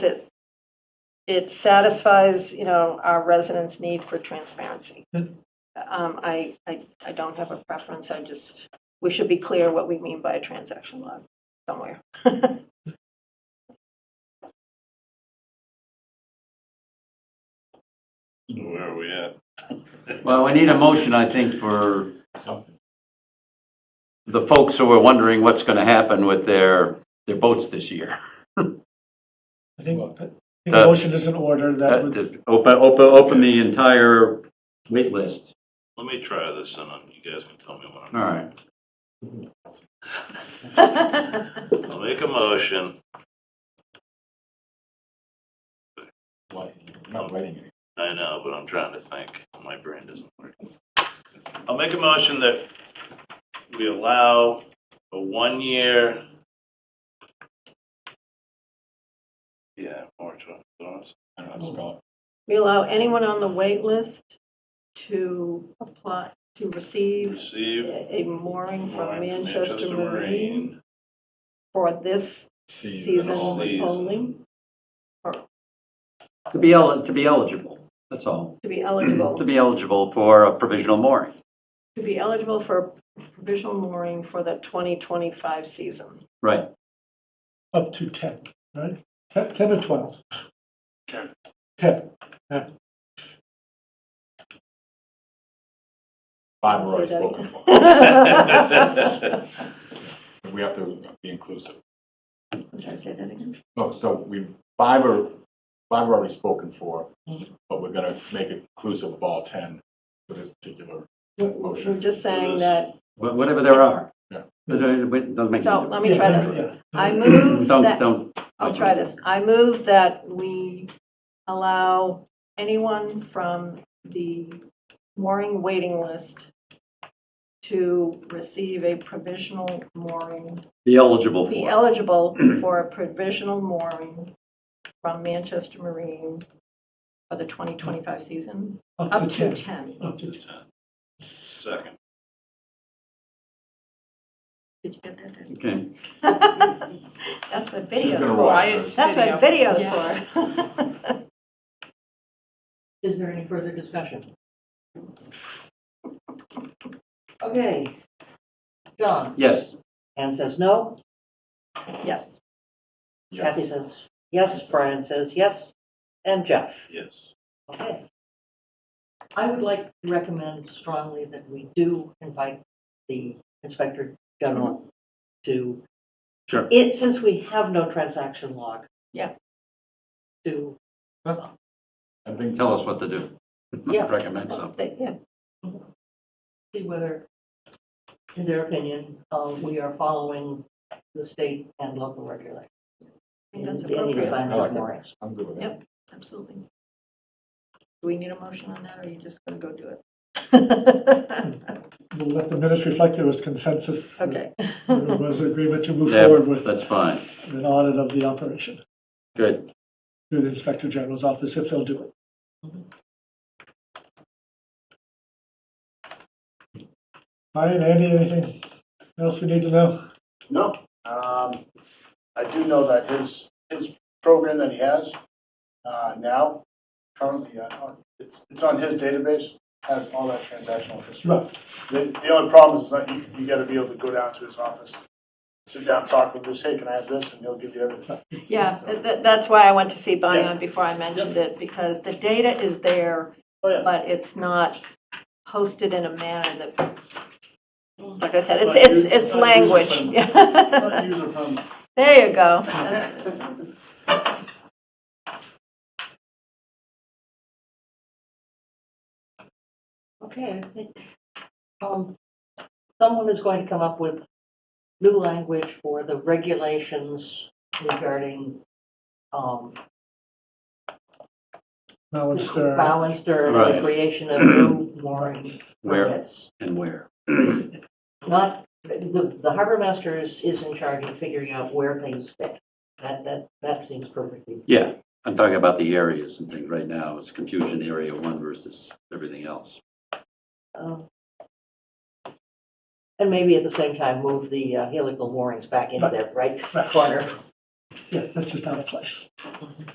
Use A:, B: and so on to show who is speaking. A: it satisfies, you know, our residents' need for transparency.
B: Yeah.
A: Um, I, I, I don't have a preference, I just, we should be clear what we mean by a transaction log somewhere.
C: Where are we at?
D: Well, we need a motion, I think, for
C: Something.
D: the folks who are wondering what's going to happen with their, their boats this year.
B: I think, I think
D: That-
B: a motion is in order that
D: Uh,
B: would,
D: to Open, open, open the entire wait list.
C: Let me try this and then you guys can tell me what I'm.
D: All right.
C: I'll make a motion. Not writing it. I know, but I'm trying to think. My brain doesn't work. I'll make a motion that we allow a one-year. Yeah, moratorium. I don't know how to spell
A: We allow anyone on the wait list to apply, to
C: it.
A: receive
C: Receive.
A: a mooring from
C: Marine-
A: Manchester Marine for this season
C: Season.
A: only,
D: To be el, to be eligible, that's all.
A: to be
D: To
A: eligible,
D: be eligible for a provisional mooring.
A: to be eligible for provisional mooring for the 2025 season.
D: Right.
B: up to 10, right? 10 10 or 12? 10. 10,
E: Five are
A: Say
E: already
A: that
E: spoken
A: again.
E: for. We have to be inclusive.
A: I'm sorry, say that again.
E: No, so we, five are, five are already spoken for,
A: Mm-hmm.
E: but we're gonna make it inclusive of all 10 for this particular
A: We're
E: motion.
A: just saying
C: Yes.
A: that,
D: Wha- Whatever there are.
E: Yeah.
D: Doesn't doesn't make
A: so
D: any
A: let
D: difference.
A: me try
B: Yeah,
A: this.
B: yeah.
A: I move
D: Don't,
A: that,
D: don't.
A: I'll try this. I move that we allow anyone from the mooring waiting list to receive a provisional mooring
D: Be eligible
A: be
D: for.
A: eligible for a provisional mooring from Manchester Marine for the 2025 season,
B: Up
A: up
B: to
A: to
B: 10.
A: 10.
B: Up to 10.
C: Second.
A: Did you get that?
D: Okay.
A: That's what
E: She's
A: video's
E: gonna
A: for.
E: watch
F: Wyatt's
E: this.
A: That's
F: video.
A: what video's
F: Yes.
A: for.
F: Is there any further discussion? Okay. John,
D: Yes.
G: Ann says no,
A: Yes,
G: Kathy says yes, Brian says yes, and Jeff.
C: Yes.
G: Okay,
F: I would like
G: I recommend strongly that we do invite the Inspector General to.
D: Sure.
G: It, since we have no transaction log.
A: Yeah.
G: To,
E: I think
D: Tell us what to do.
G: Yeah.
D: Recommend something.
A: They- yeah,
G: see whether, in their opinion, uh, we are following the state and local regulations.
A: I think that's
G: in any
A: appropriate,
G: assignment
E: I like
G: of
E: it.
G: moorings.
E: I'm good with
A: Yep.
E: that.
A: absolutely. Do we need a motion on that, or are you just going to go do it?
B: We'll let the minutes reflect there was consensus. that
A: Okay.
B: There was agreement to move
D: Yeah,
B: forward with
D: That's fine.
B: an audit of the operation
D: Good.
B: through the Inspector General's office if they'll do it. Brian, Andy, anything else we need to know?
H: No, um, I do know that his, his program that he has, uh, now, currently, uh, it's, it's on his database, has all that transactional history.
B: Right.
H: The, the only problem is that you, you gotta be able to go down to his office, sit down, talk with him, say, hey, can I have this, and he'll give you everything.
A: Yeah, tha- tha- that's why I went to see
H: Yeah.
A: Bion before I mentioned it, because the data is there,
H: Oh, yeah.
A: but it's not posted in a manner that, like I said, it's,
H: It's not
A: it's,
H: used-
A: it's
H: it's not
A: language.
H: used It's
A: Yeah.
H: not user friendly.
A: There you go. That's-
G: Okay, I think, um, someone is going to come up with new language for the regulations regarding, um,
B: Now it's there.
G: bow and stern, and
D: Right.
G: the creation of new mooring
D: Where
G: permits.
D: and where.
G: Not, the, the harbor master is, is in charge of figuring out where things fit. That, that, that seems perfectly,
D: Yeah, I'm talking about the areas and things right now. It's confusion area one versus everything else.
G: um, and maybe at the same time, move the uh, helical moorings back into that right corner.
B: Yeah, that's just out of place.